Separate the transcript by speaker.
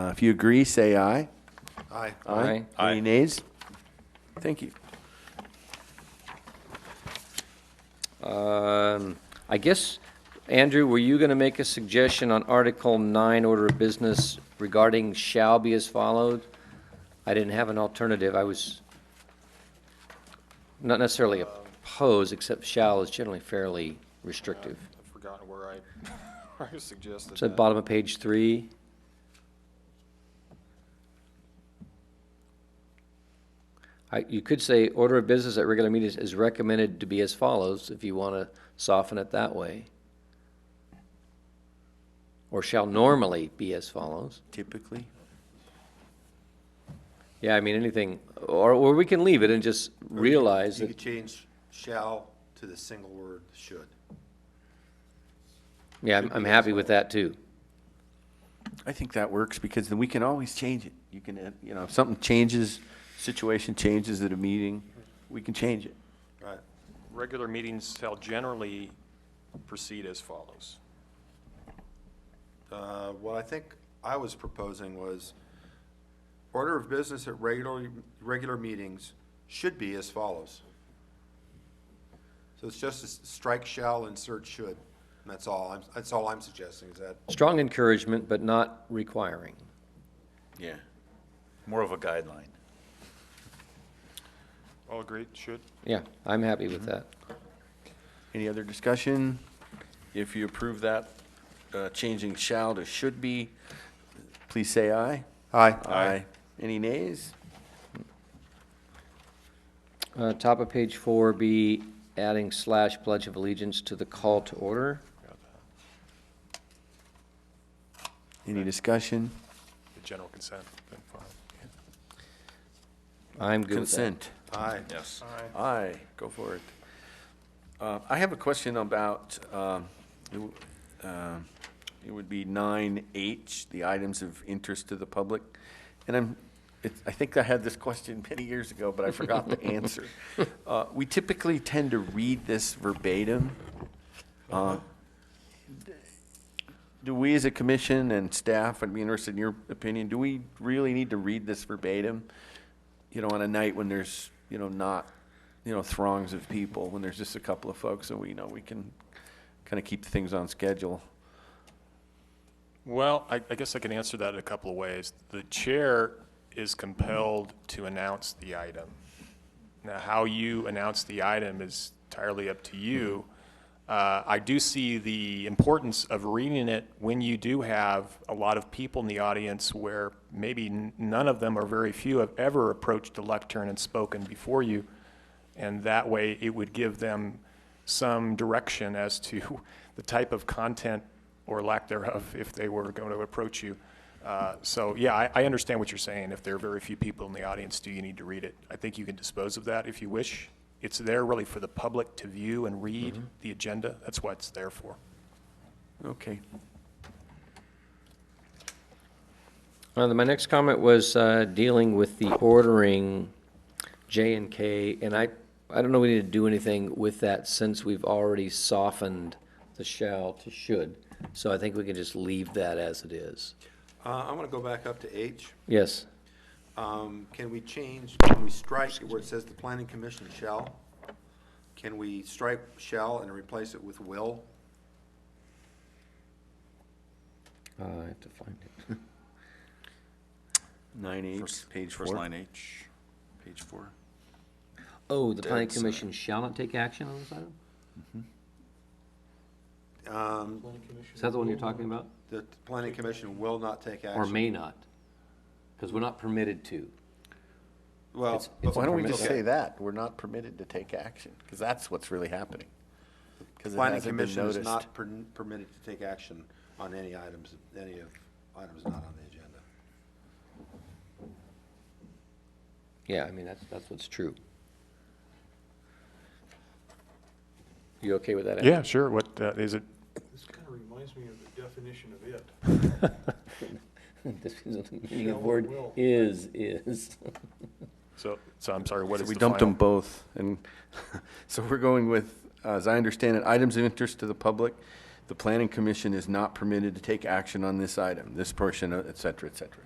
Speaker 1: Uh, If you agree, say aye.
Speaker 2: Aye.
Speaker 3: Aye.
Speaker 1: Any nays? Thank you.
Speaker 3: Um, I guess, Andrew, were you going to make a suggestion on Article 9, Order of Business regarding shall be as followed? I didn't have an alternative. I was not necessarily opposed, except shall is generally fairly restrictive.
Speaker 2: I've forgotten where I, where I suggested
Speaker 3: It's at the
Speaker 2: that.
Speaker 3: bottom of page 3. I- You could say, order of business at regular meetings is recommended to be as follows, if you want to soften it that way. Or shall normally be as follows.
Speaker 1: Typically.
Speaker 3: Yeah, I mean, anything, or, or we can leave it and just realize
Speaker 4: You
Speaker 3: that,
Speaker 4: could change shall to the single word should.
Speaker 3: yeah, I'm- I'm happy with that, too.
Speaker 1: I think that works because then we can always change it. You can, uh, you know, if something changes, situation changes at a meeting, we can change it.
Speaker 4: Right.
Speaker 2: Regular meetings shall generally proceed as follows.
Speaker 4: Uh, What I think I was proposing was, order of business at regular, regular meetings should be as follows. So it's just a s- strike shall, insert should, and that's all, I'm- that's all I'm suggesting, is that,
Speaker 3: Strong encouragement, but not requiring.
Speaker 1: Yeah.
Speaker 5: More of a guideline.
Speaker 2: All agreed, should?
Speaker 3: Yeah, I'm happy with that.
Speaker 1: Any other discussion? If you approve that, uh, changing shall to should be, please say aye.
Speaker 4: aye.
Speaker 1: Any nays?
Speaker 3: Uh, Top of page four, be adding slash pledge of allegiance to the call to order.
Speaker 1: Any discussion?
Speaker 2: The general consent, then fine.
Speaker 3: I'm good with that.
Speaker 1: Consent.
Speaker 4: Aye.
Speaker 5: Yes.
Speaker 1: Aye, go for it. Uh, I have a question about, um, it w- um, it would be nine H, the items of interest to the public. And I'm, it's- I think I had this question many years ago, but I forgot the answer. Uh, We typically tend to read this verbatim. Uh, Do we, as a commission and staff, I'd be interested in your opinion, do we really need to read this verbatim? you know, on a night when there's, you know, not, you know, throngs of people, when there's just a couple of folks, and we you know we can kind of keep things on schedule.
Speaker 2: Well, I, I guess I can answer that in a couple of ways. The chair is compelled to announce the item. Now, how you announce the item is entirely up to you. Uh, I do see the importance of reading it when you do have a lot of people in the audience where maybe n- none of them or very few have ever approached the lectern and spoken before you. And that way, it would give them some direction as to the type of content or lack thereof if they were going to approach you. Uh, So, yeah, I, I understand what you're saying. If there are very few people in the audience, do you need to read it? I think you can dispose of that if you wish. It's there really for the public to view and read the agenda. That's what it's there for.
Speaker 1: Okay.
Speaker 3: Uh, then My next comment was uh, dealing with the ordering J and K, and I, I don't know we need to do anything with that since we've already softened the shall to should. So I think we can just leave that as it is.
Speaker 4: Uh, I'm gonna go back up to H.
Speaker 3: Yes,
Speaker 4: Um, Can we change, can we strike where it says the planning commission shall? Can we strike shall and replace it with will?
Speaker 3: Uh, I have to find it.
Speaker 1: Nine H,
Speaker 5: First-
Speaker 1: page
Speaker 5: First
Speaker 1: four.
Speaker 5: line H, page four.
Speaker 3: Oh, the planning
Speaker 5: Dead center.
Speaker 3: commission shall not take action on this item?
Speaker 4: Um,
Speaker 3: Is that the one you're talking about?
Speaker 4: The planning commission will not take action.
Speaker 3: Or may not? Because we're not permitted to.
Speaker 4: Well,
Speaker 3: It's-
Speaker 4: but
Speaker 3: it's a
Speaker 1: Why don't we
Speaker 3: permit-
Speaker 1: just say that? We're not permitted to take action, because that's what's really happening. Because it
Speaker 4: planning
Speaker 1: hasn't been
Speaker 4: commission is
Speaker 1: noticed.
Speaker 4: not per- permitted to take action on any items, any of items not on the agenda.
Speaker 3: Yeah, I mean, that's, that's what's true. You okay with that? Andy?
Speaker 2: Yeah, sure. What, uh, is it,
Speaker 6: This kind of reminds me of the definition of it.
Speaker 3: This is the meaning of
Speaker 6: Shall
Speaker 3: word
Speaker 6: will.
Speaker 3: is, is.
Speaker 2: so, so I'm sorry, what
Speaker 1: So
Speaker 2: is
Speaker 1: we
Speaker 2: the
Speaker 1: dumped them
Speaker 2: final?
Speaker 1: both, and so we're going with, uh, as I understand it, items of interest to the public. The planning commission is not permitted to take action on this item, this portion, et cetera, et cetera.